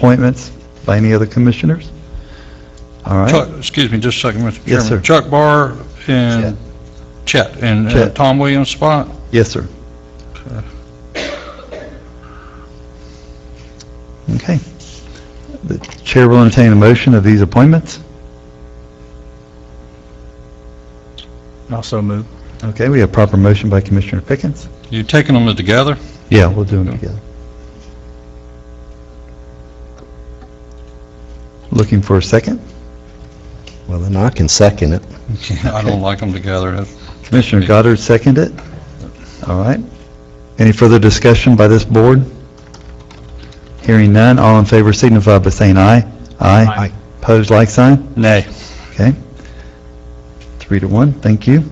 appointments by any other commissioners? All Chuck, right, excuse me, just a second, Mr. Chairman. Yes, sir. Chuck Barr and Chet, and uh, Chet. Tom Williams' spot? yes, sir. Okay. The chair will entertain a motion of these appointments. Also move. Okay, we have proper motion by Commissioner Pickens. You taking them together? Yeah, we'll do them together. Looking for a second? Well, then I can second it. I don't like them together. That's- Commissioner Goddard seconded it. All right. Any further discussion by this board? Hearing none, all in favor signify by saying aye. Aye. Opposed, like sign? Nay. Okay. Three to one, thank you.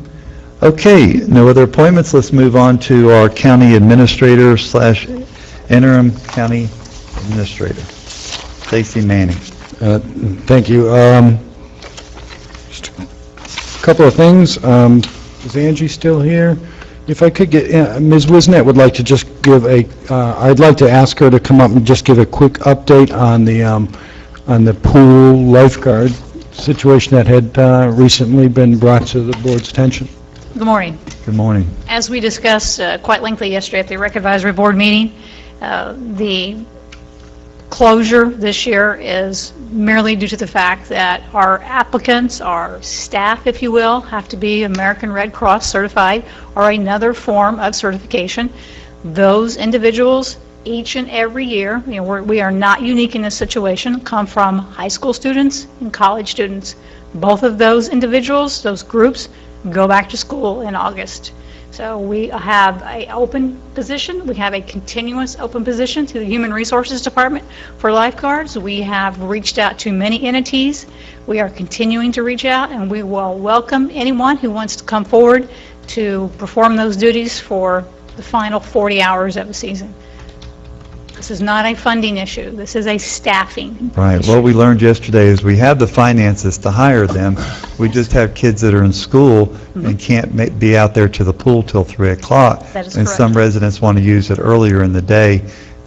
Okay, no other appointments, let's move on to our county administrator slash interim county administrator, Stacy Manning. Uh, Thank you. Um, just a Couple of things. Um, Is Angie still here? If I could get, uh, Ms. Wisnet would like to just give a, uh, I'd like to ask her to come up and just give a quick update on the, um, on the pool lifeguard situation that had uh, recently been brought to the board's attention. Good morning. Good morning. As we discussed uh, quite lengthily yesterday at the Rec Advisory Board meeting, uh, the closure this year is merely due to the fact that our applicants, our staff, if you will, have to be American Red Cross certified or another form of certification. Those individuals, each and every year, you know, we're- we are not unique in this situation, come from high school students and college students. Both of those individuals, those groups, go back to school in August. So we have a open position, we have a continuous open position to the Human Resources Department for lifeguards. We have reached out to many entities, we are continuing to reach out, and we will welcome anyone who wants to come forward to perform those duties for the final 40 hours of the season. This is not a funding issue, this is a staffing. Right, what we learned yesterday is we have the finances to hire them, we just have kids that are in school and can't ma- be out there to the pool till 3 o'clock. Mm-hmm. That is And some correct. residents want to use it earlier in the day,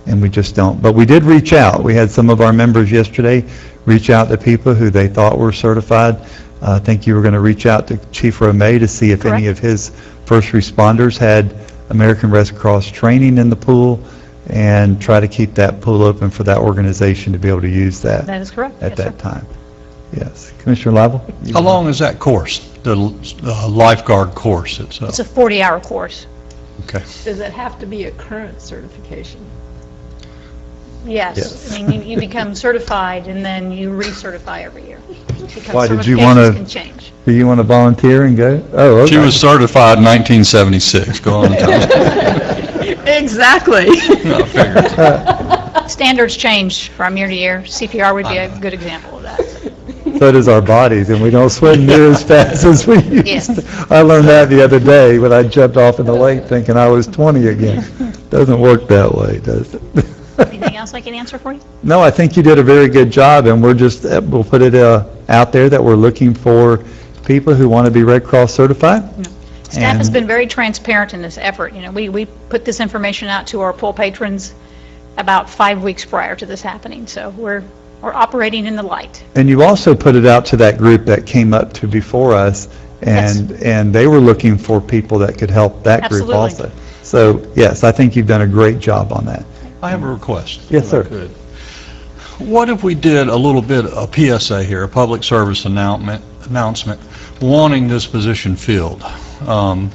and we just don't. But we did reach out, we had some of our members yesterday reach out to people who they thought were certified. Uh, I think you were going to reach out to Chief Romay to see if any of Correct. his first responders had American Red Cross training in the pool, and try to keep that pool open for that organization to be able to use that That is correct? at Yes, sir. that time. Yes. Commissioner Lible? How long is that course, the uh, lifeguard course itself? It's a 40-hour course. Okay. Does it have to be a current certification? Yes, I mean, you- you become certified and then you recertify every year. because Why, did you wanna- certifications can change. Do you want to volunteer and go? Oh, She okay. was certified in 1976, go on, Tom. Exactly. I figured. Standards change from year to year. CPR would be a Uh-huh. good example of that. So does our bodies, and we don't swim near as fast as we used Yes. to. I learned that the other day when I jumped off in the lake thinking I was 20 again. Doesn't work that way, does it? Anything else I can answer for you? No, I think you did a very good job, and we're just, uh, we'll put it uh, out there that we're looking for people who want to be Red Cross certified. Staff has And- been very transparent in this effort. You know, we, we put this information out to our pool patrons about five weeks prior to this happening, so we're, we're operating in the light. And you also put it out to that group that came up to before us, and, and they were looking for people that could help that group Absolutely. also. So, yes, I think you've done a great job on that. I have a request. Yes, sir. Good. What if we did a little bit, a PSA here, a public service announcement, announcement, wanting this position filled? Um,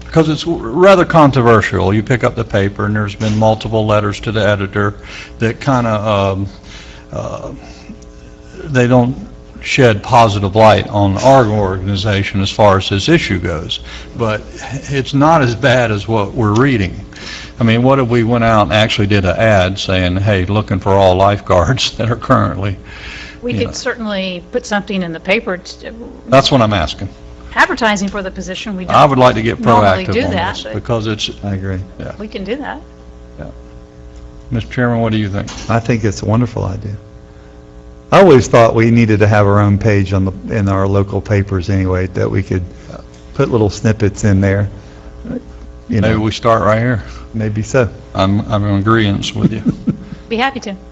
Because it's rather controversial. You pick up the paper, and there's been multiple letters to the editor that kind of, they don't shed positive light on our organization as far as this issue goes, but it's not as bad as what we're reading. I mean, what if we went out and actually did an ad saying, hey, looking for all lifeguards that are currently, We Yeah. could certainly put something in the paper t- that's what I'm asking. advertising for the position. We I don't, would like to get Normally do proactive on that, this, but- because it's, I agree. we can do that. Mr. Chairman, what do you think? I think it's a wonderful idea. I always thought we needed to have our own page on the, in our local papers anyway, that we could put little snippets in there. You Maybe know, we start right here. maybe so. I'm, I'm in agreeance with you. Be happy to.